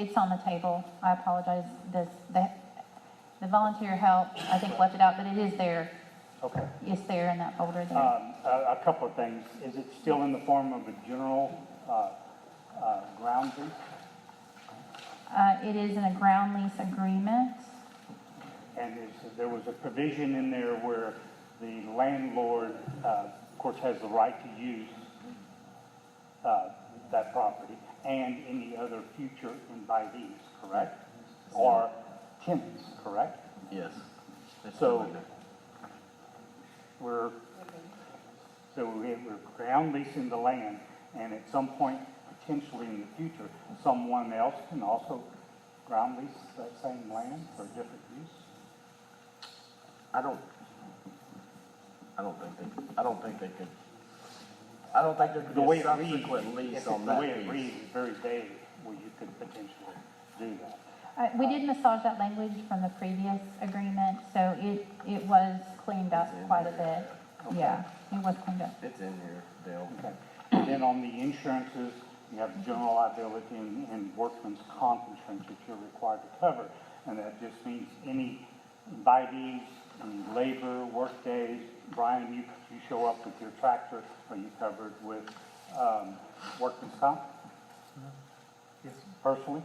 It's on the table. I apologize. This, the, the volunteer help, I think left it out, but it is there. Okay. It's there in that folder there. Um, A a couple of things. Is it still in the form of a general uh, uh, ground lease? Uh, it is in a ground lease agreement. And is- there was a provision in there where the landlord, uh, of course, has the right to use uh, that property and any other future invitees, correct? Or tenants, correct? Yes. It's So- in there. We're, so we- we're ground leasing the land, and at some point, potentially in the future, someone else can also ground lease that same land for different use? I don't, I don't think they, I don't think they could, I don't think there could The be way a it reads. subsequent lease if- on The that way it piece. reads is very vague, where you could potentially do that. Uh, we did massage that language from the previous agreement, so it, it was cleaned up quite a bit. Yeah, it was cleaned up. It's in here, Dale. Okay. And then on the insurances, you have general liability and, and workman's comp insurance that you're required to cover. And that just means any invitees, any labor, work days. Brian, you, you show up with your tractor, are you covered with, um, workman's comp Yes. personally?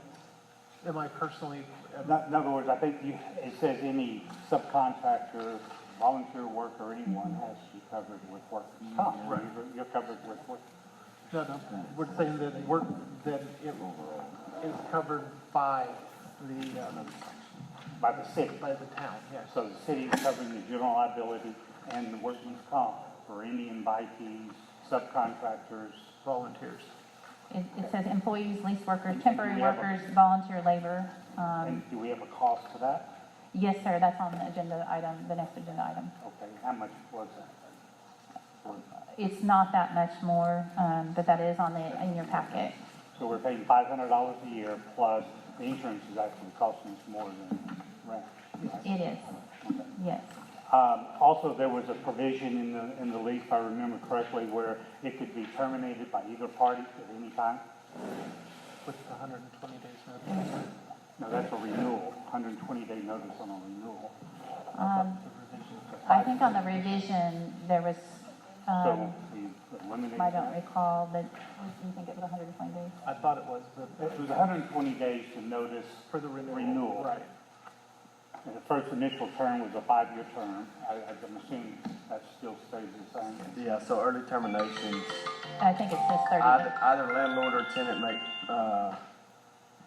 Am I personally, In oth- in other words, I think you, it says any subcontractor, volunteer worker, anyone has to be covered with workman's comp. Right. You're- You're covered with work, no, no, we're saying that work, that it is covered by the, um, by the city. by the town, yes. So the city is covering the general liability and the workman's comp for any invitees, subcontractors. Volunteers. It, it says employees, lease workers, temporary We have a- workers, volunteer labor. Um, And do we have a cost for that? yes, sir, that's on the agenda item, the next agenda item. Okay, how much was that? It's not that much more, um, but that is on the, in your packet. So we're paying five hundred dollars a year plus the insurance is actually costing us more than rent. It is, yes. Um, also, there was a provision in the, in the lease, if I remember correctly, where it could be terminated by either party at any time. With the hundred and twenty days notice. No, that's a renewal, hundred and twenty day notice on a renewal. Um, I think on the revision, there was, So um, we eliminated I that. don't recall, but you think it was hundred and twenty days? I thought it was, but It was 120 days to notice, for the renewal. Renewal. Right. and the first initial term was a five-year term. I, I'm assuming that still stays the same. Yeah, so early terminations, I think it says thirty either days. either landlord or tenant may, uh,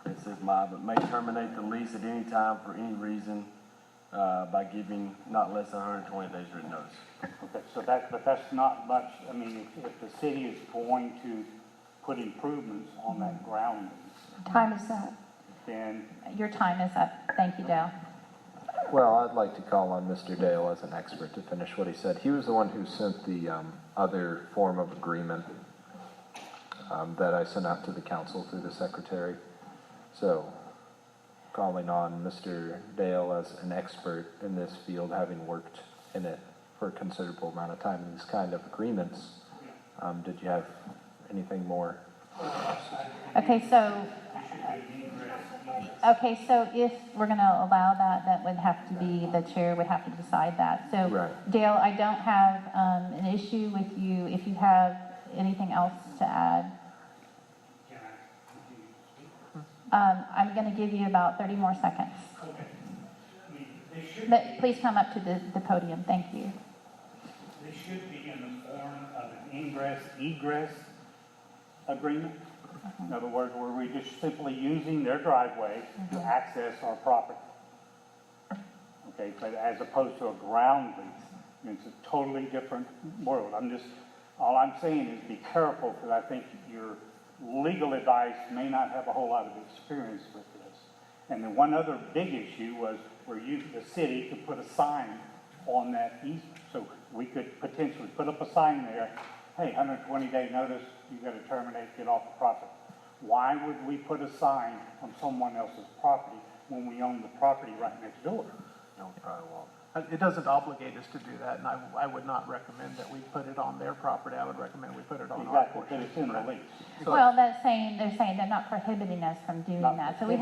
it says my, but may terminate the lease at any time for any reason, uh, by giving not less than hundred and twenty days written notice. Okay, so that, but that's not much, I mean, if, if the city is going to put improvements on that ground lease, Time is up. then, Your time is up. Thank you, Dale. Well, I'd like to call on Mr. Dale as an expert to finish what he said. He was the one who sent the um, other form of agreement um, that I sent out to the council through the secretary. So, calling on Mr. Dale as an expert in this field, having worked in it for a considerable amount of time in these kind of agreements, um, did you have anything more? Okay, so. Okay, so if we're gonna allow that, that would have to be, the chair would have to decide that. So Right. Dale, I don't have, um, an issue with you if you have anything else to add. Um, I'm gonna give you about thirty more seconds. But please come up to the, the podium, thank you. this should be in the form of an ingress, egress agreement. In other words, where we're just simply using their driveway to access our property. Okay, but as opposed to a ground lease, I mean, it's a totally different world. I'm just, all I'm saying is be careful, because I think your legal advice may not have a whole lot of experience with this. And then one other big issue was where you, the city, could put a sign on that easement. So we could potentially put up a sign there, hey, 120-day notice, you got to terminate, get off the property. Why would we put a sign on someone else's property when we own the property right next door? No, probably won't. Uh, It doesn't obligate us to do that, and I, I would not recommend that we put it on their property. I would recommend we put it on our Exactly, portion. but it's in the lease. Well, that's saying, they're saying they're not prohibiting us from doing Not that, so we